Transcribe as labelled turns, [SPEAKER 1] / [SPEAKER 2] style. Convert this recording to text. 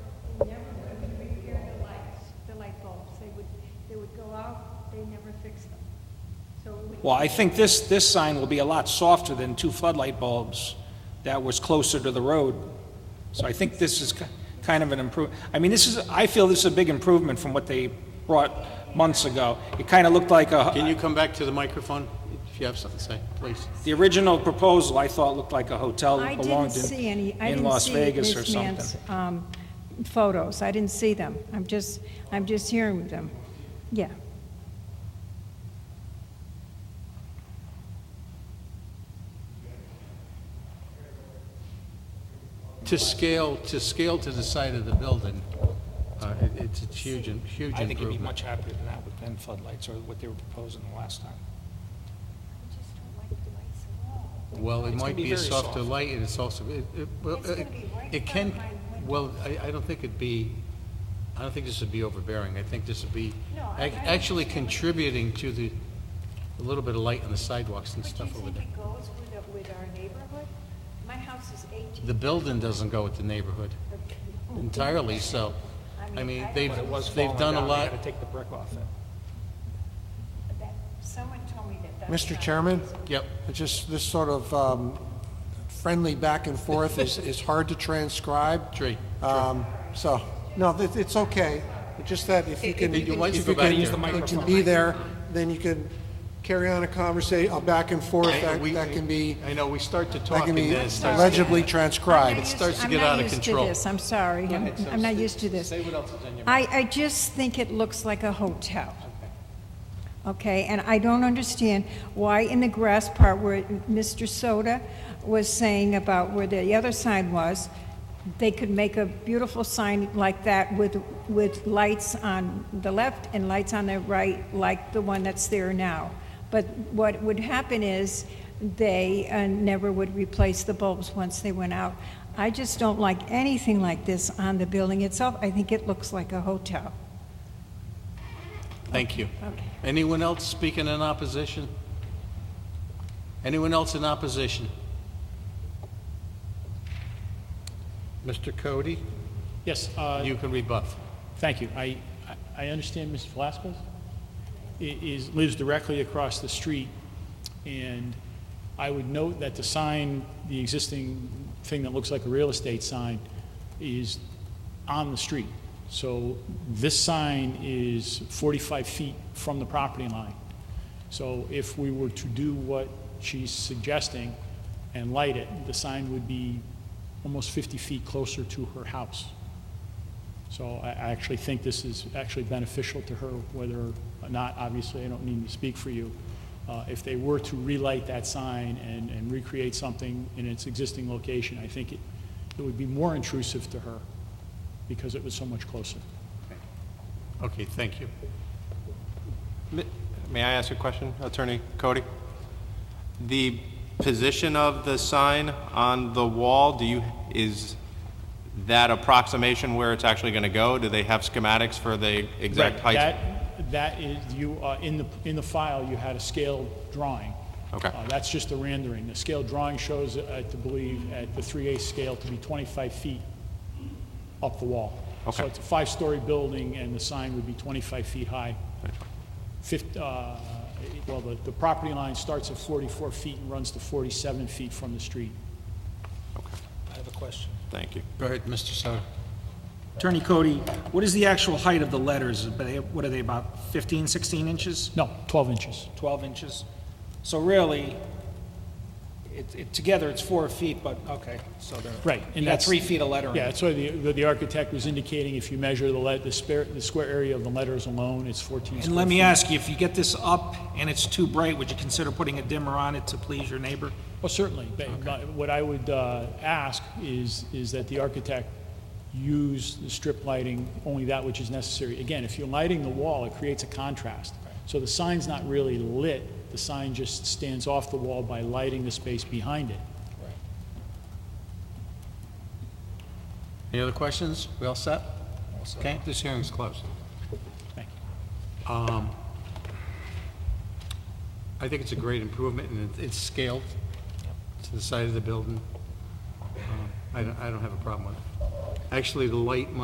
[SPEAKER 1] Well, I think this, this sign will be a lot softer than two floodlight bulbs that was closer to the road. So I think this is ki- kind of an improve, I mean, this is, I feel this is a big improvement from what they brought months ago. It kind of looked like
[SPEAKER 2] Can
[SPEAKER 1] a,
[SPEAKER 2] you come back to the microphone if you have something to say, please?
[SPEAKER 1] the original proposal, I thought looked like a hotel
[SPEAKER 3] I
[SPEAKER 1] that
[SPEAKER 3] didn't
[SPEAKER 1] belonged
[SPEAKER 3] see any,
[SPEAKER 1] in,
[SPEAKER 3] I
[SPEAKER 1] in
[SPEAKER 3] didn't
[SPEAKER 1] Las
[SPEAKER 3] see
[SPEAKER 1] Vegas or
[SPEAKER 3] this
[SPEAKER 1] something.
[SPEAKER 3] man's um, photos. I didn't see them. I'm just, I'm just hearing them. Yeah.
[SPEAKER 2] To scale, to scale to the side of the building, uh, it- it's a huge, in- huge
[SPEAKER 1] I think you'd be
[SPEAKER 2] improvement.
[SPEAKER 1] much happier than that with them floodlights or what they were proposing the last time.
[SPEAKER 2] Well, it
[SPEAKER 1] It's gonna
[SPEAKER 2] might
[SPEAKER 1] be
[SPEAKER 2] be a
[SPEAKER 1] very
[SPEAKER 2] softer
[SPEAKER 1] soft.
[SPEAKER 2] light, and it's also, it, it, well,
[SPEAKER 3] It's gonna
[SPEAKER 2] it-
[SPEAKER 3] be right
[SPEAKER 2] it
[SPEAKER 3] in front
[SPEAKER 2] can,
[SPEAKER 3] of my window.
[SPEAKER 2] well, I, I don't think it'd be, I don't think this would be overbearing. I think this would be
[SPEAKER 3] No, I-
[SPEAKER 2] ac-
[SPEAKER 3] I
[SPEAKER 2] actually contributing to the, a little bit of light on the sidewalks and stuff over there.
[SPEAKER 3] it goes with, our neighborhood? My house is 18.
[SPEAKER 2] The building doesn't go with the neighborhood entirely, so, I mean, they've,
[SPEAKER 1] But it was
[SPEAKER 2] they've
[SPEAKER 1] falling
[SPEAKER 2] done a
[SPEAKER 1] down, they
[SPEAKER 2] lot.
[SPEAKER 1] had to take the brick off it.
[SPEAKER 3] Someone told me that
[SPEAKER 4] Mr. Chairman?
[SPEAKER 2] Yep.
[SPEAKER 4] It's Just this sort of um, friendly back and forth is, is hard to transcribe.
[SPEAKER 2] Tree, tree.
[SPEAKER 4] Um, So, no, it- it's okay. It's Just that if you can.
[SPEAKER 2] it- You- why don't you
[SPEAKER 4] if
[SPEAKER 2] go back
[SPEAKER 4] can-
[SPEAKER 2] there? Use the
[SPEAKER 4] You can be there, then you can carry on a conversation, a back and forth
[SPEAKER 2] I-
[SPEAKER 4] that
[SPEAKER 2] we-
[SPEAKER 4] that can be,
[SPEAKER 2] I know, we start to
[SPEAKER 4] that
[SPEAKER 2] talk
[SPEAKER 4] can
[SPEAKER 2] and
[SPEAKER 4] be
[SPEAKER 2] then it starts.
[SPEAKER 4] legibly transcribed.
[SPEAKER 2] starts to get out of control.
[SPEAKER 3] I'm not used to this, I'm sorry. I'm I'm not used to this.
[SPEAKER 2] Say what else is on your
[SPEAKER 3] I, I just think it looks like a hotel. Okay, and I don't understand why in the grass part where Mr. Soda was saying about where the other sign was, they could make a beautiful sign like that with, with lights on the left and lights on the right, like the one that's there now. But what would happen is they uh, never would replace the bulbs once they went out. I just don't like anything like this on the building itself. I think it looks like a hotel.
[SPEAKER 2] Thank you.
[SPEAKER 3] Okay.
[SPEAKER 2] Anyone else speaking in opposition? Anyone else in opposition? Mr. Cody,
[SPEAKER 5] Yes, uh,
[SPEAKER 2] you can rebuff.
[SPEAKER 5] thank you. I, I I understand Ms. Velazquez i- is, lives directly across the street, and I would note that the sign, the existing thing that looks like a real estate sign, is on the street. So this sign is 45 feet from the property line. So if we were to do what she's suggesting and light it, the sign would be almost 50 feet closer to her house. So I I actually think this is actually beneficial to her, whether or not, obviously, I don't need to speak for you. Uh, If they were to relight that sign and and recreate something in its existing location, I think it it would be more intrusive to her because it was so much closer.
[SPEAKER 2] Okay, thank you.
[SPEAKER 6] Ma- May I ask a question, Attorney Cody? The position of the sign on the wall, do you, is that approximation where it's actually going to go? Do they have schematics for the exact
[SPEAKER 5] Right,
[SPEAKER 6] height?
[SPEAKER 5] That, that is, you, uh, in the, in the file, you had a scaled drawing.
[SPEAKER 6] Okay.
[SPEAKER 5] Uh, That's just a rendering. The scaled drawing shows, I to believe, at the 3 eighths scale to be 25 feet up the wall.
[SPEAKER 6] Okay.
[SPEAKER 5] So it's a five-story building, and the sign would be 25 feet high. Fif- uh, Well, the, the property line starts at 44 feet and runs to 47 feet from the street.
[SPEAKER 1] I have a question.
[SPEAKER 6] Thank you.
[SPEAKER 2] Go ahead, Mr. Soto.
[SPEAKER 1] Attorney Cody, what is the actual height of the letters? But they- What are they, about 15, 16 inches,
[SPEAKER 5] No, 12 inches.
[SPEAKER 1] 12 inches? So really, it, it, together it's four feet, but, okay, so they're.
[SPEAKER 5] Right, and
[SPEAKER 1] You got
[SPEAKER 5] that's-
[SPEAKER 1] three feet of lettering.
[SPEAKER 5] Yeah, that's why the, the- the architect was indicating if you measure the let, the spare, the square area of the letters alone, it's 14
[SPEAKER 1] And
[SPEAKER 5] square
[SPEAKER 1] let me
[SPEAKER 5] feet.
[SPEAKER 1] ask you, if you get this up and it's too bright, would you consider putting a dimmer on it to please your neighbor?
[SPEAKER 5] Well, certainly, but, but what I would, uh, ask is, is that the architect use the strip lighting, only that which is necessary. Again, if you're lighting the wall, it creates a contrast. So the sign's not really lit, the sign just stands off the wall by lighting the space behind it.
[SPEAKER 2] Any other questions? We all set? Okay, this hearing's closed. Um,
[SPEAKER 5] Thank you.
[SPEAKER 2] I think it's a great improvement, and it- it's scaled to the side of the building. Um, I don't, I don't have a problem with it. Actually, the light might